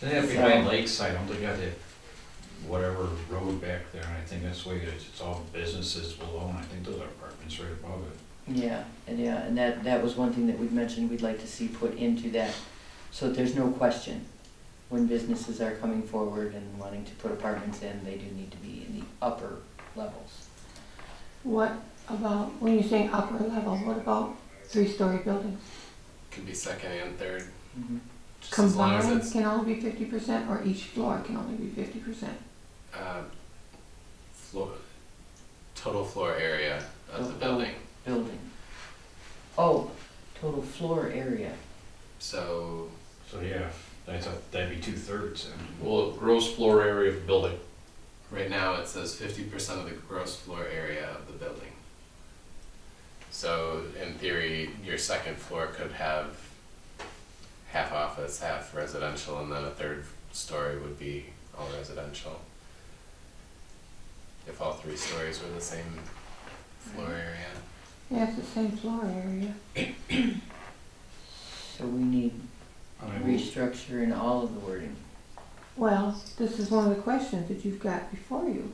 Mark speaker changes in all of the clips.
Speaker 1: Then it'd be by Lakeside, I'm looking at the, whatever road back there, and I think that's the way it is, it's all businesses below, and I think those are apartments right above it.
Speaker 2: Yeah, and yeah, and that, that was one thing that we'd mentioned we'd like to see put into that, so that there's no question. When businesses are coming forward and wanting to put apartments in, they do need to be in the upper levels.
Speaker 3: What about, when you're saying upper level, what about three-story buildings?
Speaker 4: Could be second and third,
Speaker 1: Mm-hmm.
Speaker 4: just as long as
Speaker 3: Combined
Speaker 4: it's,
Speaker 3: can only be fifty percent, or each floor can only be fifty percent?
Speaker 4: uh, floor, total floor area of the
Speaker 2: Total.
Speaker 4: building.
Speaker 2: Building. Oh, total floor area.
Speaker 4: So,
Speaker 1: So, yeah, that's a, that'd be two thirds, and
Speaker 5: Well, gross floor area of the building.
Speaker 4: right now it says fifty percent of the gross floor area of the building. So in theory, your second floor could have half office, half residential, and then a third story would be all residential. If all three stories were the same floor area.
Speaker 3: Yeah, it's the same floor area.
Speaker 2: So we need
Speaker 1: I mean,
Speaker 2: restructure in all of the wording.
Speaker 3: Well, this is one of the questions that you've got before you.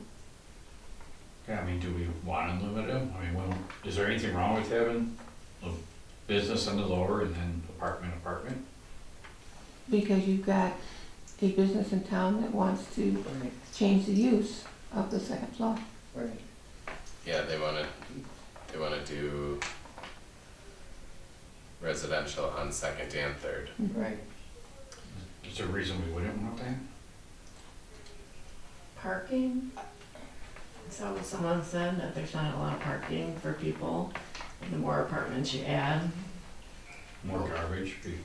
Speaker 1: yeah, I mean, do we wanna limit them? I mean, well, is there anything wrong with having a business on the lower and then apartment, apartment?
Speaker 3: Because you've got a business in town that wants to
Speaker 2: Right,
Speaker 3: change the use of the second floor.
Speaker 2: right.
Speaker 4: Yeah, they wanna, they wanna do residential on second and third.
Speaker 2: Right.
Speaker 1: Is there a reason we wouldn't want that?
Speaker 6: Parking? So someone said that there's not a lot of parking for people, and the more apartments you add,
Speaker 1: More garbage, people,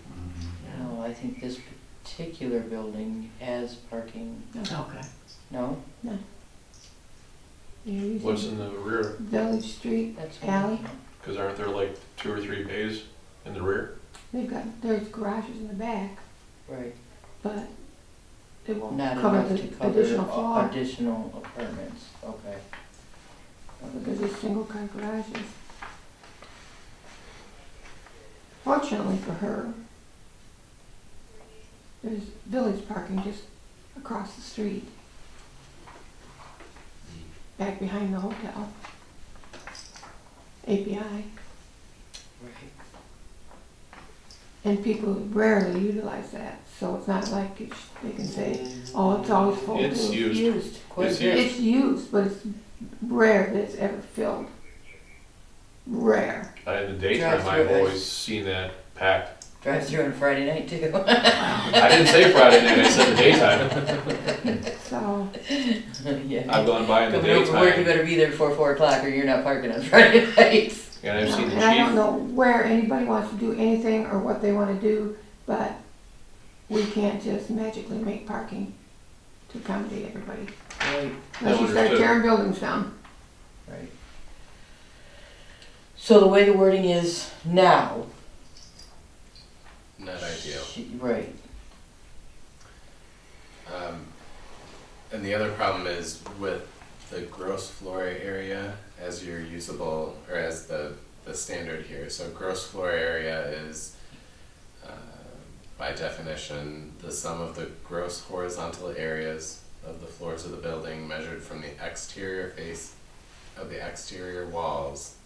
Speaker 6: yeah,
Speaker 2: No, I think this particular building has parking,
Speaker 6: okay.
Speaker 2: no?
Speaker 3: You're using
Speaker 5: What's in the rear?
Speaker 3: Village Street,
Speaker 2: That's.
Speaker 3: Alley?
Speaker 5: Because aren't there like two or three bays in the rear?
Speaker 3: they've got, there's garages in the back,
Speaker 2: Right.
Speaker 3: but it won't
Speaker 2: Not
Speaker 3: cover
Speaker 2: enough
Speaker 3: the
Speaker 2: to cover
Speaker 3: additional
Speaker 2: a-
Speaker 3: floor.
Speaker 2: additional apartments, okay.
Speaker 3: Because they're single car garages. Fortunately for her, there's village parking just across the street. Back behind the hotel. API,
Speaker 2: Right.
Speaker 3: and people rarely utilize that, so it's not like it's- they can say, oh, it's always full.
Speaker 5: It's
Speaker 3: too."
Speaker 5: used.
Speaker 2: Used, quite
Speaker 5: It's
Speaker 2: good.
Speaker 5: used.
Speaker 3: It's used, but it's rare that it's ever filled. Rare.
Speaker 5: Uh, In the daytime,
Speaker 2: Drive-through
Speaker 5: I've
Speaker 2: bays.
Speaker 5: always seen that packed.
Speaker 2: Drive through on Friday night too.
Speaker 5: I didn't say Friday night, I said the daytime.
Speaker 3: So,
Speaker 5: I've
Speaker 2: Yeah.
Speaker 5: gone by in the
Speaker 2: Coming home from work, you
Speaker 5: daytime,
Speaker 2: better be there before four o'clock or you're not parking on Friday nights.
Speaker 5: and I've seen the
Speaker 3: and I don't
Speaker 5: chief.
Speaker 3: know where anybody wants to do anything or what they wanna do, but we can't just magically make parking to accommodate everybody.
Speaker 2: Right,
Speaker 3: Unless you start
Speaker 5: Understood.
Speaker 3: tearing buildings down.
Speaker 2: right. So the way the wording is now.
Speaker 4: Not ideal.
Speaker 2: she- Right,
Speaker 4: Um, and the other problem is with the gross floor area as your usable, or as the, the standard here. So gross floor area is, uh, by definition, the sum of the gross horizontal areas of the floors of the building measured from the exterior face of the exterior walls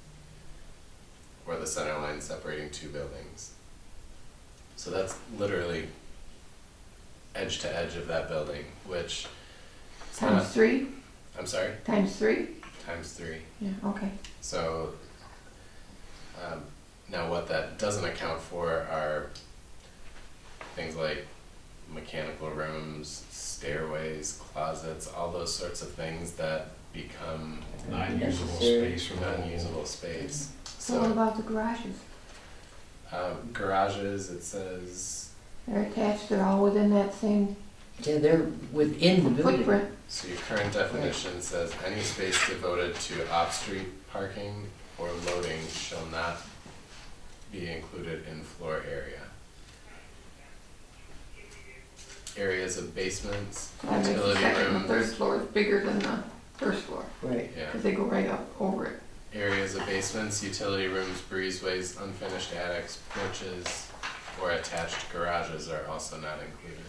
Speaker 4: or the center line separating two buildings. So that's literally edge to edge of that building, which it's
Speaker 3: Times
Speaker 4: not,
Speaker 3: three,
Speaker 4: I'm sorry,
Speaker 3: times three?
Speaker 4: times three.
Speaker 3: Yeah, okay.
Speaker 4: So um, now what that doesn't account for are things like mechanical rooms, stairways, closets, all those sorts of things that become
Speaker 1: not usable
Speaker 2: Necessary.
Speaker 1: space or unusable.
Speaker 4: unusable space.
Speaker 3: So what
Speaker 4: So
Speaker 3: about the garages?
Speaker 4: um, garages, it says,
Speaker 3: They're attached, they're all within that same
Speaker 2: yeah, they're within the building.
Speaker 3: footprint.
Speaker 4: so your current definition says any space devoted to off-street parking or loading shall not be included in floor area. Areas of basements,
Speaker 3: That makes the
Speaker 4: Utility
Speaker 3: second and
Speaker 4: rooms.
Speaker 3: third floor is bigger than the first floor,
Speaker 2: Right,
Speaker 4: yeah.
Speaker 3: because they go right up over it.
Speaker 4: areas of basements, utility rooms, breezeways, unfinished attics, porches, or attached garages are also not included.